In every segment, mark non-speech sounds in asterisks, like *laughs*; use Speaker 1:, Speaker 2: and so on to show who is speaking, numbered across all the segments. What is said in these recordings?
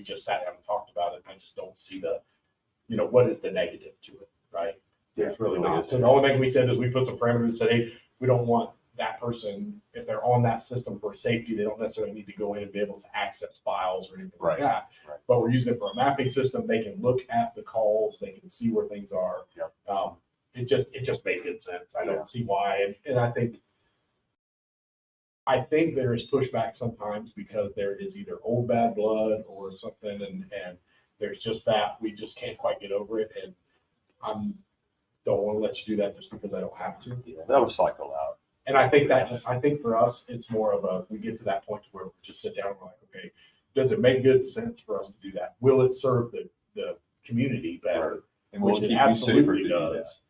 Speaker 1: we just sat down and talked about it, and I just don't see the, you know, what is the negative to it, right? There's really not. So the only thing we said is we put some parameters and said, hey, we don't want that person, if they're on that system for safety, they don't necessarily need to go in and be able to access files or anything like
Speaker 2: Right,
Speaker 1: that.
Speaker 2: right.
Speaker 1: But we're using it for a mapping system. They can look at the calls, they can see where things are.
Speaker 2: Yep.
Speaker 1: Um, it just, it just made good sense. I
Speaker 2: Yeah.
Speaker 1: don't see why. And, and I think I think there is pushback sometimes because there is either old bad blood or something, and and there's just that we just can't quite get over it, and I'm don't want to let you do that just because I don't have to.
Speaker 2: That was cycle out.
Speaker 1: And I think that just I think for us, it's more of a we get to that point where we just sit down and we're like, okay, does it make good sense for us to do that? Will it serve the the community better?
Speaker 2: And
Speaker 1: Which
Speaker 2: we'll keep
Speaker 1: it
Speaker 2: you safer
Speaker 1: absolutely
Speaker 2: to do that.
Speaker 1: does.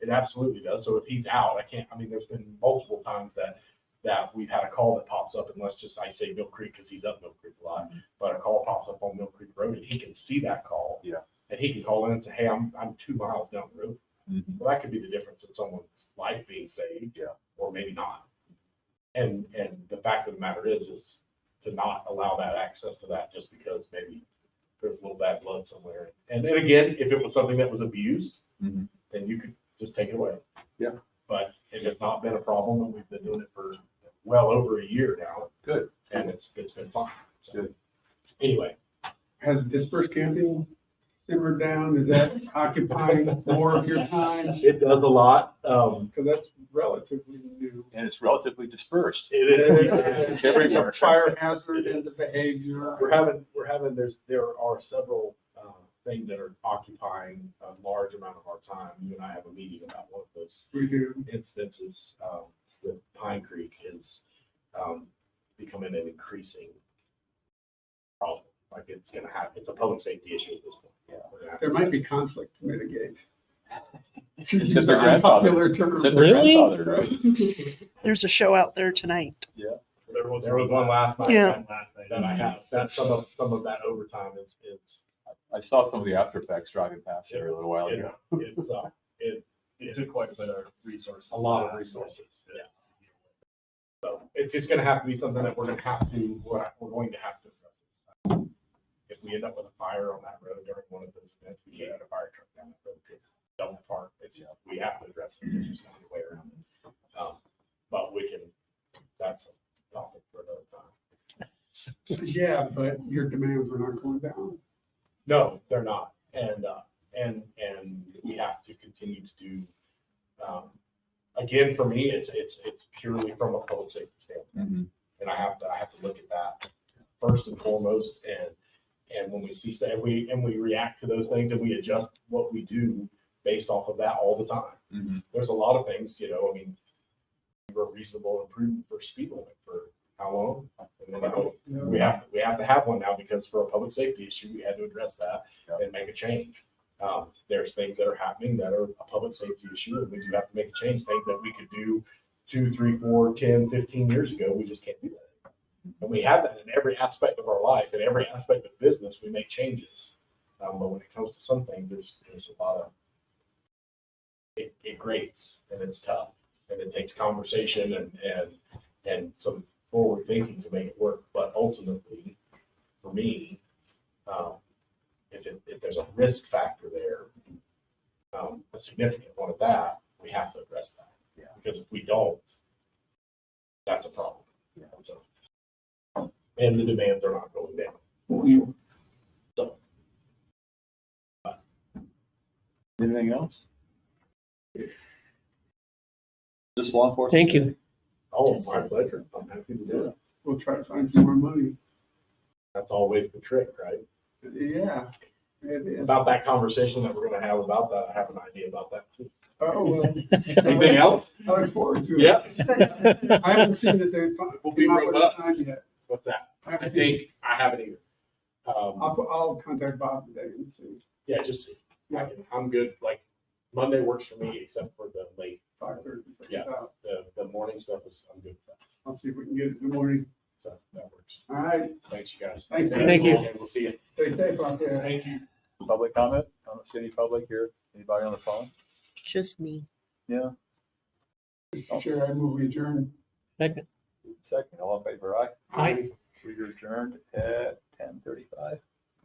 Speaker 1: It absolutely does. So if he's out, I can't, I mean, there's been multiple times that, that we've had a call that pops up and let's just, I say Mill Creek because he's up Mill Creek a
Speaker 2: Mm-hmm.
Speaker 1: lot, but a call pops up on Mill Creek Road and he can see that call.
Speaker 2: Yeah.
Speaker 1: And he can call in and say, hey, I'm, I'm two miles down the road.
Speaker 2: Mhm.
Speaker 1: Well, that could be the difference in someone's life being saved.
Speaker 2: Yeah.
Speaker 1: Or maybe not. And, and the fact of the matter is, is to not allow that access to that just because maybe there's a little bad blood somewhere. And then again, if it was something that was abused,
Speaker 2: Mhm.
Speaker 1: then you could just take it away.
Speaker 2: Yeah.
Speaker 1: But it has not been a problem and we've been doing it for well over a year now.
Speaker 2: Good.
Speaker 1: And it's, it's been fine. So,
Speaker 2: Good.
Speaker 1: Anyway,
Speaker 3: Has dispersed camping simmered down? Is that occupying more of your time?
Speaker 1: it does a lot. Um,
Speaker 3: Because that's relatively new.
Speaker 2: And it's relatively
Speaker 1: *laughs*
Speaker 2: dispersed.
Speaker 1: it is.
Speaker 2: It's everywhere.
Speaker 3: Fire hazard and the behavior.
Speaker 1: We're having, we're having, there's, there are several, uh, things that are occupying a large amount of our time. You and I have a meeting about one of those
Speaker 3: We do.
Speaker 1: instances, um, with Pine Creek is, um, becoming an increasing problem. Like it's gonna happen, it's a public safety issue at this point. Yeah.
Speaker 3: There might be conflict
Speaker 1: *laughs*
Speaker 3: to mitigate. To use
Speaker 2: Except their
Speaker 3: an
Speaker 2: grandfather.
Speaker 3: unpopular term.
Speaker 2: Except their
Speaker 4: Really?
Speaker 2: grandfather, right?
Speaker 4: There's a show out there tonight.
Speaker 1: There was, there was one last night,
Speaker 4: Yeah.
Speaker 1: that last night, and I have, that, some of, some of that overtime is, is,
Speaker 2: I saw some of the after effects driving past there a little while
Speaker 1: it's,
Speaker 2: ago.
Speaker 1: it's, uh, it, it took quite a bit of resources. A lot of resources, yeah. So it's just gonna have to be something that we're gonna have to, we're, we're going to have to address. it. If we end up with a fire on that road during one of those events, we can't get a fire truck down that road, it's double parked, it's, just- we have to address it, there's just no other way around it. Um, But we can, that's a topic for another time.
Speaker 3: Yeah, but your demands are not going down.
Speaker 1: No, they're not. And, uh, and, and we have to continue to do, um, again, for me, it's, it's, it's purely from a public safety standpoint.
Speaker 2: Mhm.
Speaker 1: And I have to, I have to look at that first and foremost. And, and when we see, and we, and we react to those things and we adjust what we do based off of that all the time.
Speaker 2: Mhm.
Speaker 1: There's a lot of things, you know, I mean, we were reasonable and prudent for speed limit for how long? And then I
Speaker 3: you know?
Speaker 1: we have, we have to have one now because for a public safety issue, we had to address that
Speaker 2: Yeah.
Speaker 1: and make a change. Um, there's things that are happening that are a public safety issue and we do have to make a change, things that we could do two, three, four, ten, fifteen years ago, we just can't do that. And we have that in every aspect of our life, in every aspect of business, we make changes. Um, but when it comes to some things, there's, there's a lot of, it, it grates and it's tough and it takes conversation and, and, and some forward thinking to make it work. But ultimately, for me, um, if, it, if there's a risk factor there, um, a significant one of that, we have to address that.
Speaker 2: Yeah.
Speaker 1: Because if we don't, that's a problem.
Speaker 2: Yeah.
Speaker 1: So- and the demands are not going down.
Speaker 2: Anything else? This law enforcement?
Speaker 4: Thank you.
Speaker 1: Oh,
Speaker 4: Yes.
Speaker 1: my pleasure. I'm happy to do it.
Speaker 3: We'll try to find some more money.
Speaker 1: That's always the trick, right?
Speaker 3: Yeah, it is.
Speaker 1: About that conversation that we're going to have about that, I have an idea about that too.
Speaker 3: Oh, well,
Speaker 1: *laughs* Anything else?
Speaker 3: I look forward to it.
Speaker 1: Yeah.
Speaker 3: *laughs* I haven't seen that they've. fi-
Speaker 1: We'll be
Speaker 3: come up with a
Speaker 1: robust.
Speaker 3: time yet.
Speaker 1: What's that? I
Speaker 3: haven't seen-
Speaker 1: think I haven't either. Um,
Speaker 3: I'll, put- I'll contact Bob today and see.
Speaker 1: Yeah, just, I can- I'm good, like, Monday works for me, except for the late,
Speaker 3: Five thirty, check it
Speaker 1: Yeah.
Speaker 3: out.
Speaker 1: the, the morning stuff is, I'm good with that,
Speaker 3: I'll see if we can get it in the morning.
Speaker 1: so that works.
Speaker 3: All right,
Speaker 1: Thanks, you guys.
Speaker 3: Thanks,
Speaker 4: man. Thank you.
Speaker 1: And we'll see you.
Speaker 3: stay safe out there.
Speaker 1: Thank you.
Speaker 2: Public comment? I don't see any public here. Anybody on the phone?
Speaker 4: Just me.
Speaker 3: Mr. Chair, I move we adjourn.
Speaker 4: Second.
Speaker 2: Second, all in favor, aye?
Speaker 4: Aye.
Speaker 2: We are adjourned at ten thirty-five.